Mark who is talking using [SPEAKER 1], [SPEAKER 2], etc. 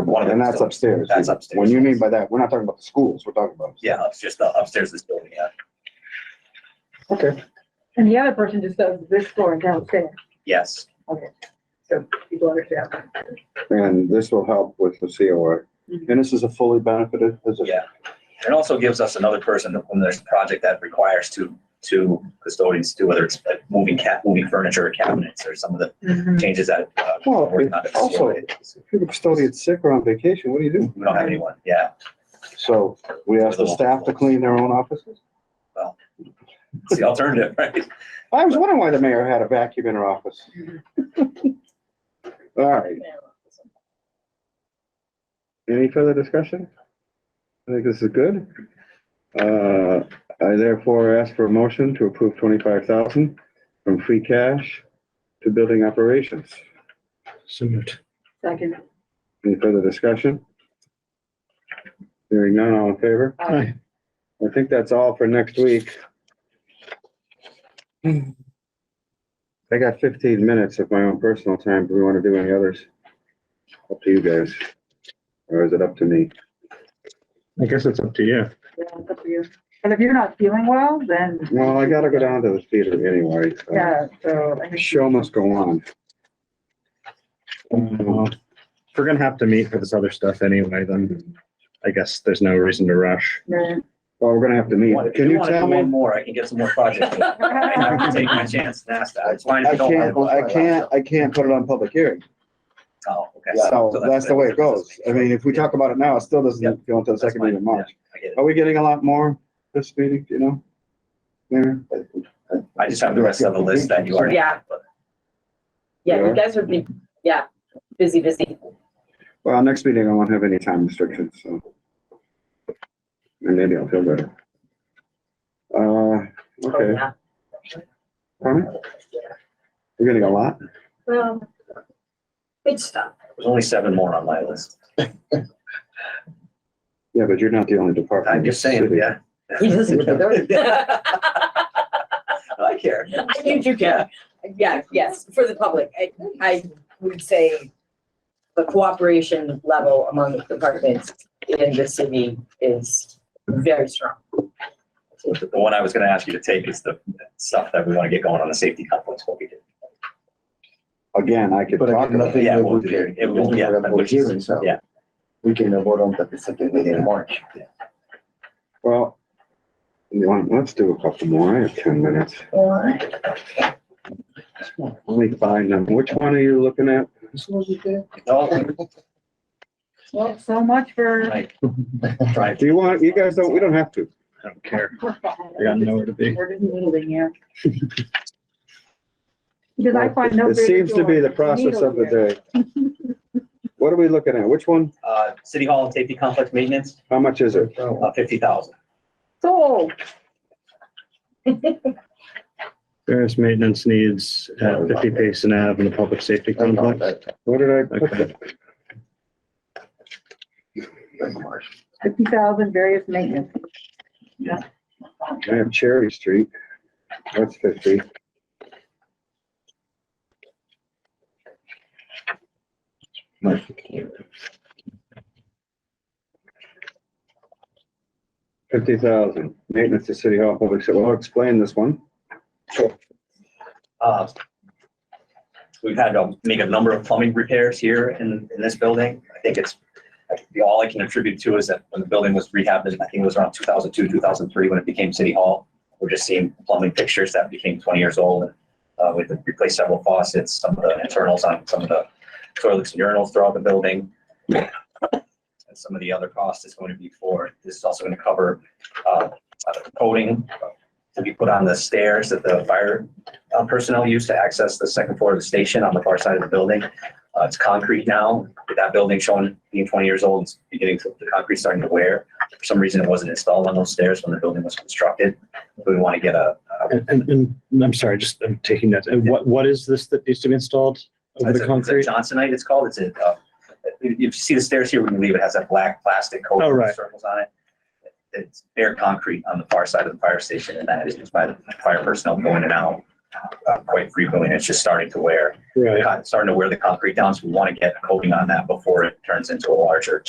[SPEAKER 1] one of them.
[SPEAKER 2] And Oh, that's
[SPEAKER 1] still-
[SPEAKER 2] upstairs.
[SPEAKER 1] That's upstairs.
[SPEAKER 2] When you mean by that, we're not talking about the schools, we're talking about.
[SPEAKER 1] Yeah, it's just the upstairs is building, yeah.
[SPEAKER 2] Okay.
[SPEAKER 3] And the other person just does this floor downstairs,
[SPEAKER 1] Yes,
[SPEAKER 3] so people understand.
[SPEAKER 2] And this will help with the COA.
[SPEAKER 3] Mhm.
[SPEAKER 2] And this is a fully benefited position.
[SPEAKER 1] yeah. It also gives us another person when there's a project that requires two, two custodians to, whether it's like moving cat, moving furniture or cabinets or some of the changes that. uh,
[SPEAKER 2] Well,
[SPEAKER 1] we're not
[SPEAKER 2] it- also- If you're the custodian's sick or on vacation, what do you do?
[SPEAKER 1] We don't have anyone, yeah.
[SPEAKER 2] So we ask the staff to clean their own offices?
[SPEAKER 1] It's the alternative, right?
[SPEAKER 2] I was wondering why the mayor had a vacuum in her office. All right, any further discussion? I think this is good. Uh, I therefore ask for a motion to approve twenty-five thousand from free cash to building operations.
[SPEAKER 4] So moved.
[SPEAKER 3] Second.
[SPEAKER 2] Any further discussion? Hearing none, all in favor?
[SPEAKER 3] uh,
[SPEAKER 4] Aye.
[SPEAKER 2] I think that's all for next week. I got fifteen minutes of my own personal time. Do we want to do any others? Up to you guys. Or is it up to me?
[SPEAKER 4] I guess it's up to you.
[SPEAKER 3] Yeah, it's up to you. And if you're not feeling well, then,
[SPEAKER 2] Well, I gotta go down to the theater anyway. so
[SPEAKER 3] yeah, so, I
[SPEAKER 2] the
[SPEAKER 3] mean,
[SPEAKER 2] Show must go on.
[SPEAKER 4] Uh, If we're gonna have to meet for this other stuff anyway, then I guess there's no reason to rush.
[SPEAKER 3] then-
[SPEAKER 2] Well, we're gonna have to meet.
[SPEAKER 1] One- if
[SPEAKER 2] Can you
[SPEAKER 1] wanna do
[SPEAKER 2] tell
[SPEAKER 1] One
[SPEAKER 2] me?
[SPEAKER 1] more, I can get some more projects. I can take my chance and ask that. It's fine if
[SPEAKER 2] I
[SPEAKER 1] you don't.
[SPEAKER 2] can't, I can't, I can't put it on public hearing.
[SPEAKER 1] Oh, okay.
[SPEAKER 2] So that's the way it goes. I mean, if we talk about it now, it still doesn't go until the
[SPEAKER 1] That's
[SPEAKER 2] second meeting of
[SPEAKER 1] fine.
[SPEAKER 2] March.
[SPEAKER 1] I get it.
[SPEAKER 2] Are we getting a lot more this meeting, do you know? Mayor?
[SPEAKER 1] I just have the rest of the list that you already.
[SPEAKER 5] Yeah. Yeah,
[SPEAKER 2] Yeah.
[SPEAKER 5] you guys would be, yeah, busy, busy.
[SPEAKER 2] Well, next meeting I won't have any time restrictions, so. And maybe I'll feel better. Uh,
[SPEAKER 5] Oh,
[SPEAKER 2] okay,
[SPEAKER 5] yeah.
[SPEAKER 2] Pardon? we're getting a lot.
[SPEAKER 5] Well, good stuff.
[SPEAKER 1] There's only seven more on my list.
[SPEAKER 2] Yeah, but you're not the only department.
[SPEAKER 1] I'm just saying,
[SPEAKER 2] City.
[SPEAKER 1] yeah.
[SPEAKER 5] He doesn't care.
[SPEAKER 1] I care.
[SPEAKER 5] I do you care. Yeah, yes, for the public. I, I would say the cooperation level among departments in the city is very strong.
[SPEAKER 1] The one I was gonna ask you to take is the stuff that we wanna get going on the safety complex, what we did.
[SPEAKER 2] Again, I could
[SPEAKER 6] But
[SPEAKER 2] talk
[SPEAKER 6] again,
[SPEAKER 2] about it.
[SPEAKER 6] nothing
[SPEAKER 1] Yeah,
[SPEAKER 6] will
[SPEAKER 1] we'll
[SPEAKER 6] be-
[SPEAKER 1] do it. It will- yeah,
[SPEAKER 6] we'll have
[SPEAKER 1] which is-
[SPEAKER 6] hearing, so
[SPEAKER 1] yeah.
[SPEAKER 6] We can vote on that the second meeting in March.
[SPEAKER 2] Well, you want- let's do a couple more. I have ten minutes. Let me find them. Which one are you looking at?
[SPEAKER 1] Oh,
[SPEAKER 3] well, so much for.
[SPEAKER 1] right. Right.
[SPEAKER 2] Do you want, you guys don't, we don't have to.
[SPEAKER 4] I don't care. I got nowhere to be.
[SPEAKER 3] We're just noodling here. Because I find no.
[SPEAKER 2] It seems to be the process of the day. What are we looking at? Which one?
[SPEAKER 1] Uh, City Hall safety complex maintenance,
[SPEAKER 2] How much is it?
[SPEAKER 1] uh, fifty thousand.
[SPEAKER 3] Sold.
[SPEAKER 4] Various maintenance needs at fifty Payson Ave and the public safety complex.
[SPEAKER 2] What did I? put
[SPEAKER 4] Okay,
[SPEAKER 3] fifty thousand various maintenance.
[SPEAKER 2] I have Cherry Street. That's fifty. Fifty thousand, maintenance to City Hall Public, so I'll explain this one.
[SPEAKER 1] Uh, We've had to make a number of plumbing repairs here in, in this building. I think it's, the, all I can attribute to is that when the building was rehabbed, I think it was around two thousand two, two thousand three, when it became City Hall. We're just seeing plumbing fixtures that became twenty years old. and Uh, we replaced several faucets, some of the internals on some of the toilets and urinals throughout the building. And some of the other cost is going to be for, this is also going to cover, uh, coating to be put on the stairs that the fire uh, personnel used to access the second floor of the station on the far side of the building. Uh, It's concrete now. With That building showing being 20 years old, it's beginning to, the concrete's starting to wear. For some reason, it wasn't installed on those stairs when the building was constructed. So We want to get a, a-
[SPEAKER 4] And, and, and I'm sorry, just, I'm taking that. And what, what is this that needs to be installed
[SPEAKER 1] it's a
[SPEAKER 4] over the
[SPEAKER 1] it's a
[SPEAKER 4] concrete?
[SPEAKER 1] Johnsonite, it's called. It's a, uh, if you see the stairs here, when you leave, it has that black plastic coat
[SPEAKER 4] Oh,
[SPEAKER 1] with
[SPEAKER 4] right.
[SPEAKER 1] circles on it. It's bare concrete on the far side of the fire station and that is used by the fire personnel going in and out. uh, quite frequently, and it's just starting to wear,
[SPEAKER 4] Right.
[SPEAKER 1] starting to wear the concrete down, so we want to get a coating on that before it turns into a larger